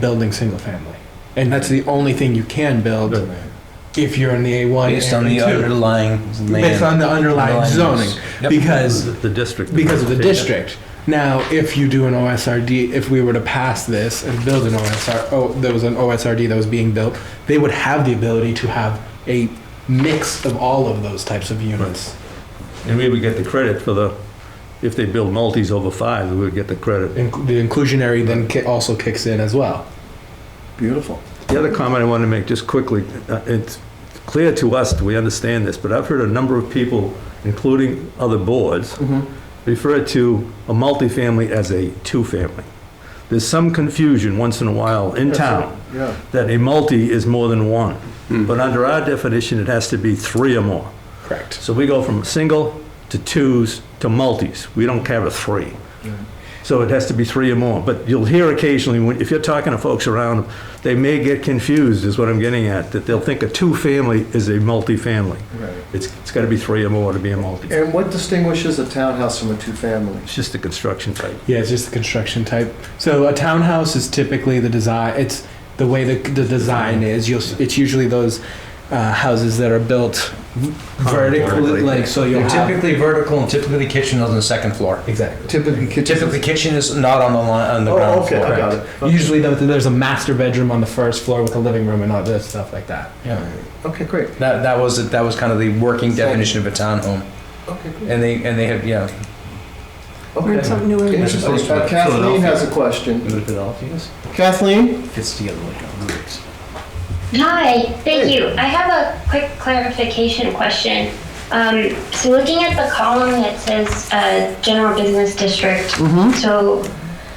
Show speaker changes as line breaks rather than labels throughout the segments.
building single family. And that's the only thing you can build if you're in the A1.
Based on
and
the
A2.
underlying land.
Based on the underlying
Underlying
zoning,
use. Yep.
because,
The district.
because of the district. Now, if you do an OSRD, if we were to pass this and build an OSR, oh, there was an OSRD that was being built, they would have the ability to have a mix of all of those types of units.
And we would get the credit for the, if they build multis over five, we would get the credit.
Inc- The inclusionary then ki- also kicks in as well.
Beautiful.
The other comment I want to make, just quickly, uh, it's clear to us, we understand this, but I've heard a number of people, including other boards,
Mm-hmm.
refer to a multifamily as a two-family. There's some confusion once in a while in town
Yeah.
that a multi is more than one.
Hmm.
But under our definition, it has to be three or more.
Correct.
So we go from single to twos to multis. We don't have a three. So it has to be three or more. But you'll hear occasionally, when, if you're talking to folks around, they may get confused, is what I'm getting at, that they'll think a two-family is a multifamily.
Right.
It's, it's gotta be three or more to be a multi.
And what distinguishes a townhouse from a two-family?
It's just a construction type.
Yeah, it's just the construction type. So a townhouse is typically the design. It's the way the the design is. You'll. s- It's usually those uh, houses that are built vertically,
Vertically.
like so. You'll
They're
have
typically vertical and typically the kitchen is on the second floor.
exactly.
Typically kitchens.
Typically kitchen is not on the line, on the
Oh,
ground
okay, I
floor.
got it. Okay.
Usually, though, there's a master bedroom on the first floor with a living room and all this stuff like that.
Yeah.
Okay, great.
That, that was, that was kind of the working definition of a townhome.
Okay, great.
And they, and they have, yeah.
Learn
Okay.
something new every day.
Interesting. Uh, Kathleen has a question.
Philadelphia's?
Kathleen?
Fits together like a root.
Hi, thank
Hey.
you. I have a quick clarification question. Um, so looking at the column that says, uh, general business district. So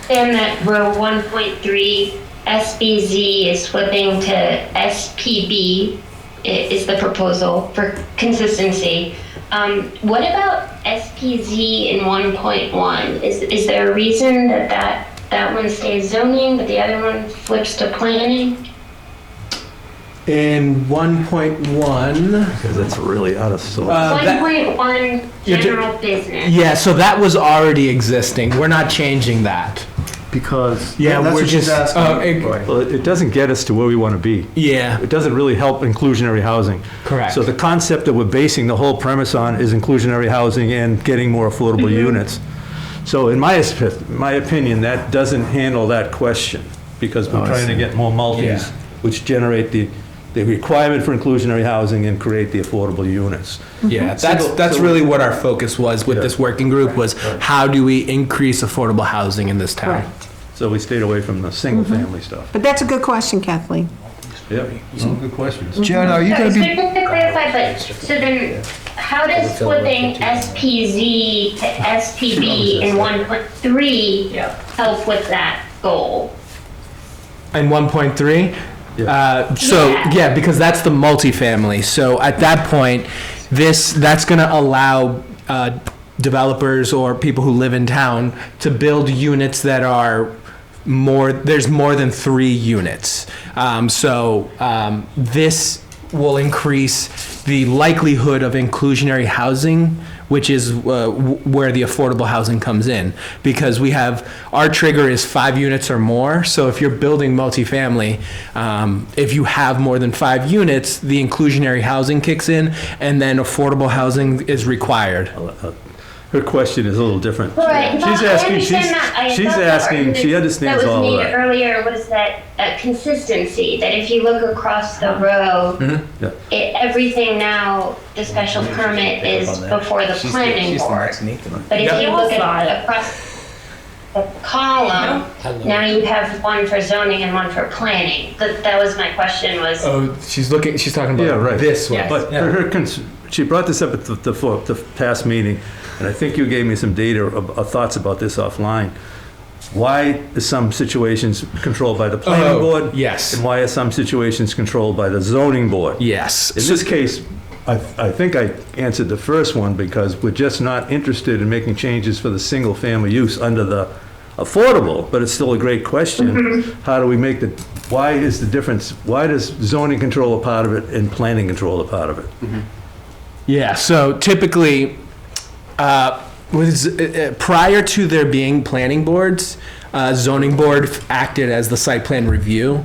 then that row one point three, SBZ is flipping to SPB i- is the proposal for consistency. Um, what about SPZ in one point one? Is, is there a reason that that, that one stays zoning, but the other one flips to planning?
In 1.1,
Because it's really out of
Uh,
sort.
One
that-
point one
Yeah, ju-
general business.
yeah, so that was already existing. We're not changing that.
Because.
Yeah,
that's
we're
what she's
just
asking.
uh, it-
Right.
Well, it it doesn't get us to where we wanna be.
yeah,
It doesn't really help inclusionary housing.
correct.
So the concept that we're basing the whole premise on is inclusionary housing and getting more affordable units. So in my, esp- my opinion, that doesn't handle that question, because
Oh,
we're
I
trying to
see.
get more multis,
Yeah.
which generate the, the requirement for inclusionary housing and create the affordable units. Mm-hmm.
Yeah, that's
Single-
that's
so-
really what our focus was with
Yeah.
this working group was how do we increase affordable housing in this town?
So we stayed away from the single-family stuff.
But that's a good question, Kathleen.
Yep, Mm-hmm. some good questions.
Jen, are you
uh,
So
gonna
it's
be,
good to clarify, but, so then, how does flipping SPZ to SPB in one point three help with that goal?
And 1.3. Uh, so
Yeah.
yeah, because that's the multifamily. So at that point, this that's going to allow uh, developers or people who live in town to build units that are more. There's more than three units. Um, so um, this will increase the likelihood of inclusionary housing, which is uh, w- where the affordable housing comes in. Because we have, our trigger is five units or more. So if you're building multifamily, um, if you have more than five units, the inclusionary housing kicks in and then affordable housing is required.
Her question is a little different.
Right,
She's
no, I
asking-
understand
she's-
that. I
she's
thought the
asking- she
argument
understands all of that.
That was made earlier was that uh, consistency, that if you look across the row,
Yeah.
it, everything now, the special permit is before the planning board. But if you look at across the column, now you have one for zoning and one for planning. That, that was my question was,
Oh, she's looking, she's talking
Yeah, right.
this one.
But her, her cons- she brought this up at the, the, fo- the past meeting, and I think you gave me some data or, or thoughts about this offline. Why is some situations controlled by the planning
Oh,
board?
yes.
And why are some situations controlled by the zoning board?
Yes.
In this case, I, I think I answered the first one because we're just not interested in making changes for the single-family use under the affordable, but it's still a great question. How do we make the, why is the difference, why does zoning control a part of it and planning control a part of it?
Yeah, so typically, uh, was, uh, uh, prior to there being planning boards,
uh, zoning board acted as the site plan review.